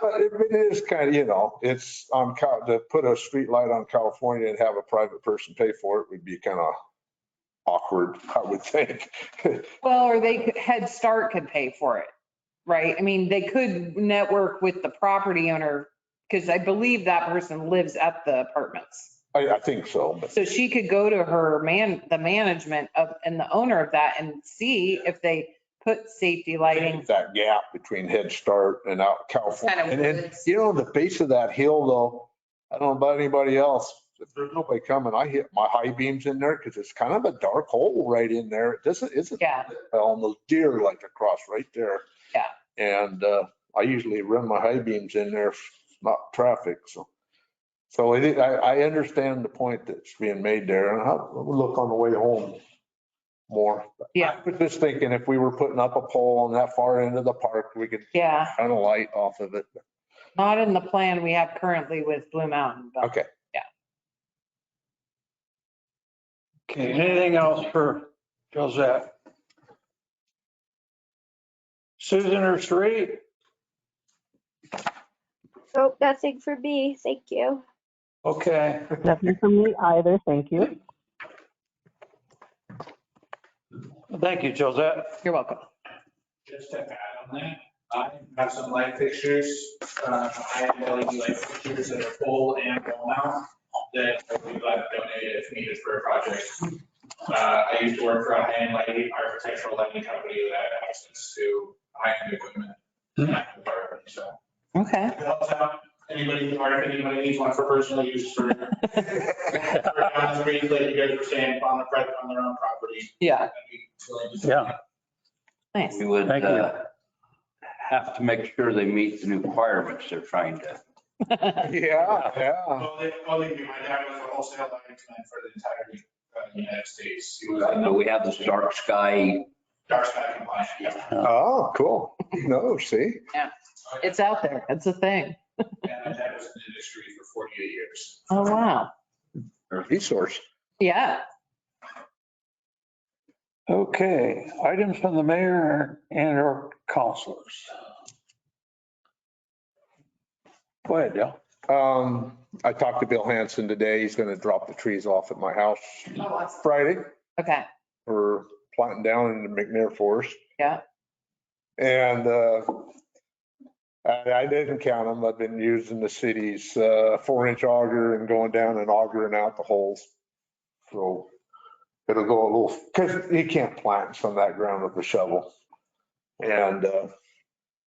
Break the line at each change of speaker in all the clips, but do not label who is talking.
But it it is kind of, you know, it's on, Cal- to put a street light on California and have a private person pay for it would be kind of awkward, I would think.
Well, or they, could- Head Start could pay for it, right? I mean, they could network with the property owner because I believe that person lives at the apartments.
I, I think so, but
So she could go to her man, the management of, and the owner of that and see if they put safety lighting.
that gap between Head Start and out California.
Kind of
And then,
woods.
you know, the base of that hill though, I don't know about anybody else. If there's nobody coming, I hit my high beams in there because it's kind of a dark hole right in there. It doesn't, isn't
Yeah,
on those deer like across right there.
Yeah.
And uh, I usually run my high beams in there, not traffic, so. So it is- I, I understand the point that's being made there and I'll I'll look on the way home more.
Yeah.
I was just thinking if we were putting up a pole on that far end of the park, we could
yeah.
shine a light off of it.
Not in the plan we have currently with Blue Mountain, but
Okay.
Okay, anything else for Josette? Susan or Sheree?
Nope, nothing Oh, for me. Thank you.
Okay,
Nothing from me either, thank you.
thank you, Josette.
you're welcome.
Just to add on that, I have some light fixtures, uh, I have LED light fixtures that are full and wall mount that I would like donated if needed for a project. Uh, I used to work for a high-end lighting, architectural lighting company that had access to high-end equipment. in that department, So,
Okay.
it helps out anybody, or if anybody needs one for personal use for, for down the street, like you guys were saying, on the, private- on their own property.
Yeah,
I'd be willing to-
Yeah.
nice.
We would
Thank you.
uh, have to make sure they meet the new requirements they're trying to.
Yeah, yeah.
Well, they, well, they, my dad was a wholesale lighting man for the entire uh, United States. He was
So
a
we have this dark sky.
dark sky compliant. yeah.
Oh, cool. No, see?
It's out there. It's a thing.
And my dad was in the industry for 48 years.
Oh, wow.
Resource.
Yeah.
Okay, items from the mayor and our counselors. Go ahead, Dale.
Um, I talked to Bill Hanson today. He's going to drop the trees off at my house Friday.
Okay.
We're planting down in the McNair Forest.
Yeah.
And uh, I I didn't count them. I've been using the city's uh, four inch auger and going down and augering out the holes. So it'll go a little, because you can't plant some of that ground with a shovel. And, uh,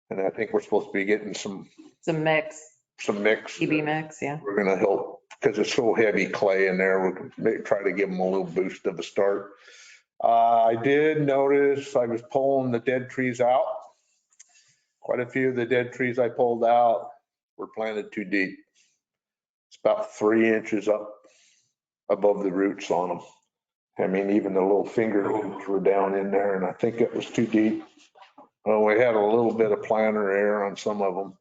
and I think we're supposed to be getting some,
It's a mix,
some mix.
TB mix. Yeah.
We're gonna help, because it's so heavy clay in there, we're gonna try to give them a little boost of a start. Uh, I did notice I was pulling the dead trees out. Quite a few of the dead trees I pulled out were planted too deep. It's about three inches up above the roots on them. I mean, even the little finger roots were down in there and I think it was too deep. Well, we had a little bit of planter air on some of them.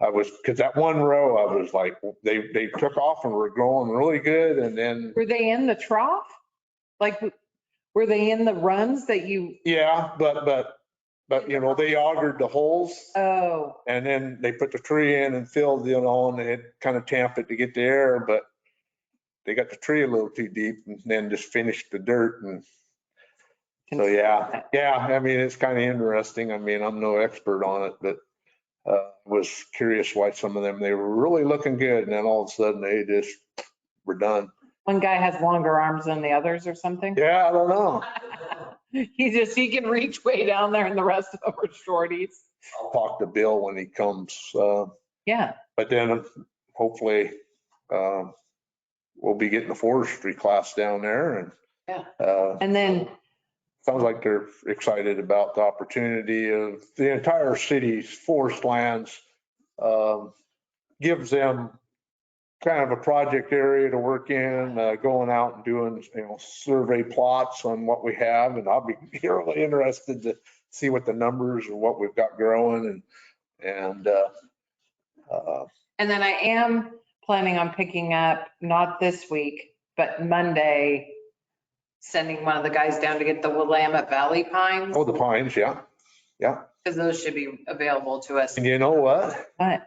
I was, because that one row, I was like, they, they took off and were growing really good and then,
Were they in the trough? Like, were they in the runs that you,
yeah, but, but, but, you know, they augered the holes
oh,
and then they put the tree in and filled, you know, and they had kind of tamped it to get the air, but they got the tree a little too deep and then just finished the dirt and So, yeah, yeah, I mean, it's kind of interesting. I mean, I'm no expert on it, but uh, was curious why some of them, they were really looking good and then all of a sudden they just were done.
one guy has longer arms than the others or something?
Yeah, I don't know.
He just, he can reach way down there and the rest of them are shorties.
I'll talk to Bill when he comes. uh,
Yeah.
But then hopefully um, we'll be getting the forestry class down there and. uh,
And then,
sounds like they're excited about the opportunity of the entire city's forest lands. um, Gives them kind of a project area to work in, uh, going out and doing, you know, survey plots on what we have. And I'll be really interested to see what the numbers and what we've got growing and, and, uh, uh,
and then I am planning on picking up, not this week, but Monday, sending one of the guys down to get the Willamette Valley pines.
oh, the pines, yeah.
because those should be available to us.
And you know what?
But